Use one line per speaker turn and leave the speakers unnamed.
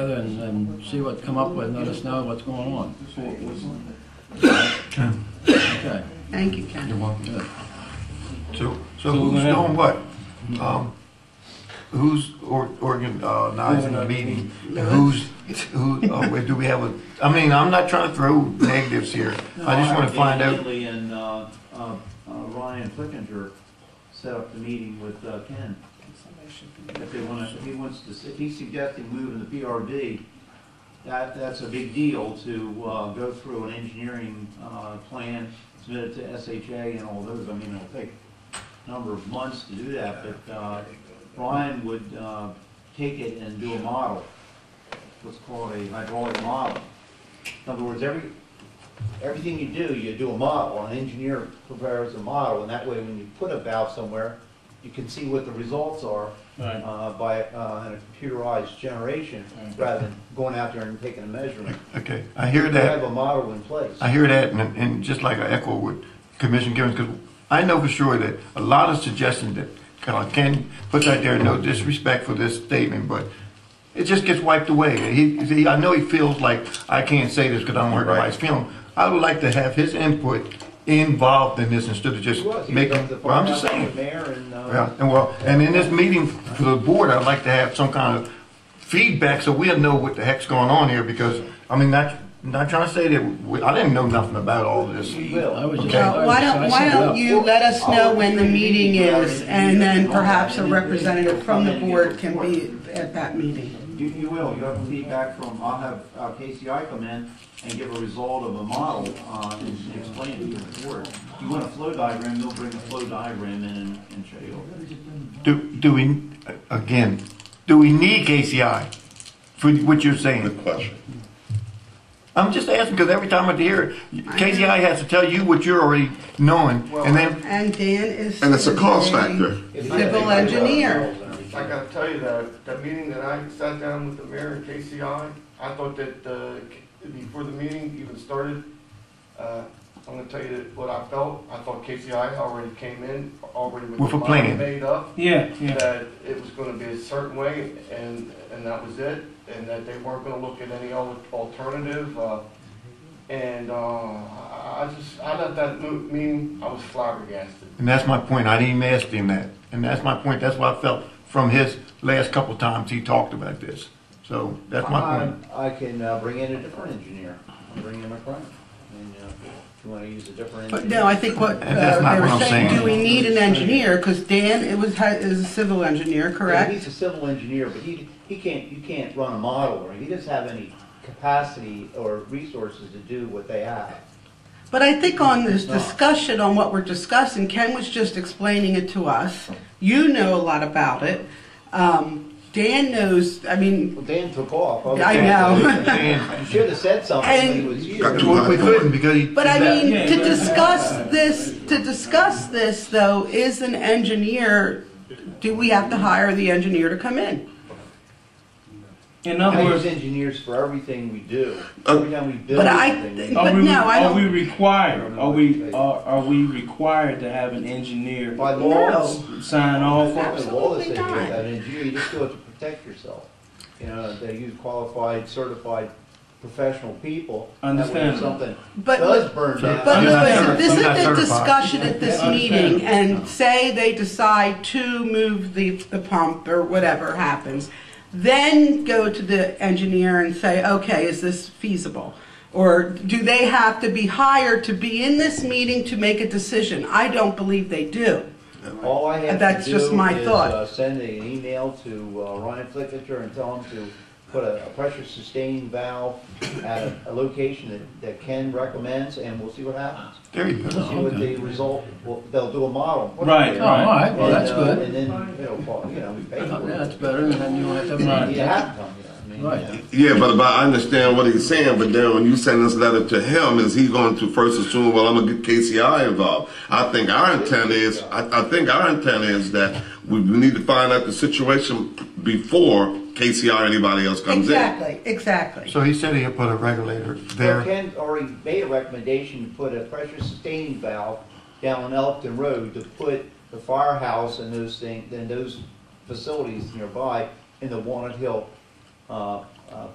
together and, and see what come up with, and let us know what's going on. Okay,
Thank you, Ken.
You're welcome.
good.
So,
So
so
we're
who's
gonna have-
doing what? Um, Who's or- organizing the meeting? Who's, who, uh, wait, do we have a, I mean, I'm not trying to throw negatives here. I just want to find out.
Immediately, and uh, uh, uh, Ryan Flickinger set up the meeting with uh, Ken. If they want to, if he wants to, if he's suggesting moving the PRD, that, that's a big deal to uh, go through an engineering uh, plan, submit it to SHA and all those. I mean, it'll take a number of months to do that, but uh, Ryan would uh, take it and do a model, what's called a hydraulic model. In other words, every, everything you do, you do a model, an engineer prepares a model, and that way, when you put a valve somewhere, you can see what the results are
Right.
uh, by uh, a computerized generation, rather than going out there and taking a measurement.
Okay, I hear
You have
that.
a model in place.
I hear that, and, and just like I echo with Commissioner Givens, because I know for sure that a lot of suggestions that uh, Ken puts out there, no disrespect for this statement, but it just gets wiped away. He, he- I know he feels like, I can't say this because I'm working by his film. I would like to have his input involved in this instead of
He
just
was, he was
making,
up to the
well, I'm just
firehouse with
saying.
Mayor and, uh,
Yeah, and well, and in this meeting for the board, I'd like to have some kind of feedback so we'll know what the heck's going on here because, I mean, not, not trying to say that, we- I didn't know nothing about all this.
we will.
I was just.
Okay.
Well, Uh, why don't, why don't you let us know when the meeting is, and then perhaps a representative from the board can be at that meeting.
You, you will, you have feedback from, I'll have uh, KCI come in and give a result of a model, uh, and explain it to the board. You want a flow diagram, they'll bring a flow diagram in and and show you.
Do, do we, again, do we need KCI for what you're saying?
Good question.
I'm just asking because every time I hear it, KCI has to tell you what you're already knowing and then,
And Dan is.
And it's a cost
is a
factor.
Civil engineer.
I gotta tell you that, that meeting that I sat down with the mayor and KCI, I thought that, uh, before the meeting even started, uh, I'm gonna tell you that what I felt, I thought KCI already came in, already with.
With a
the
plan.
model Made up,
Yeah, yeah.
that it was gonna be a certain way, and, and that was it, and that they weren't gonna look at any al- alternative, uh, and, uh, I, I just, I left that mo- meeting, I was flabbergasted.
and that's my point. I didn't even ask him that. And that's my point. That's what I felt from his last couple times he talked about this. So that's my point.
I I can uh, bring in a different engineer, I'll bring in a friend, and, uh, if you wanna use a different
But
engineer.
no, I think what uh,
That's not
they were
what I'm
saying,
saying.
do we need an engineer? Because Dan, it was, hi- is a civil engineer, correct?
He's a civil engineer, but he, he can't, you can't run a model, or he doesn't have any capacity or resources to do what they have.
But I think on this discussion, on what we're discussing, Ken was just explaining it to us. You know a lot about it. Um, Dan knows, I mean,
Well, Dan took off. was-
I know.
And
You should have said something when he
And-
was
Got
here.
to-
we couldn't because he.
But I mean,
Yeah,
to
yeah.
discuss this, to discuss this though, is an engineer, do we have to hire the engineer to come in?
In
I
other
use
words,
engineers for everything we do,
Uh,
every time we build
But I-
something.
are
But
we,
no, I
are
don't-
we required, are we, are, are we required to have an engineer
By law,
No.
sign off on?
by law, they say
Absolutely
you have
not.
an engineer, you just do it to protect yourself. You know, they use qualified, certified, professional people. That way if
Understand.
Something
But,
does burn down.
but
I'm not
Louis,
certi-
this
I'm
is
not
the
certified.
discussion at this
Yeah, I understand.
meeting and say they decide to move the, the pump or whatever happens. Then go to the engineer and say, okay, is this feasible? Or do they have to be hired to be in this meeting to make a decision? I don't believe they do.
All I have
That's
to do
just my
is
thought.
uh, send an email to uh, Ryan Flickinger and tell him to put a, a pressure sustaining valve at a, a location that, that Ken recommends, and we'll see what happens.
There you go.
We'll see what the result. Well, they'll do a model.
Right,
Oh, all right, well,
And,
that's
uh,
good.
And then it'll fall. You know, we pay
Yeah,
for
That's
it.
better, and then you won't have to.
Right.
You have to come. You know, I mean,
Right.
yeah.
Yeah, but, but I understand what he's saying, but then when you send this letter to him, is he going to first assume, well, I'm gonna get KCI involved? I think our intent is, I, I think our intent is that we we need to find out the situation before KCI or anybody else comes in.
Exactly, exactly.
So he said he'll put a regulator
Well,
there.
Ken already made a recommendation to put a pressure sustaining valve down on Elkton Road to put the firehouse and those things, and those facilities nearby in the Walnut Hill, uh,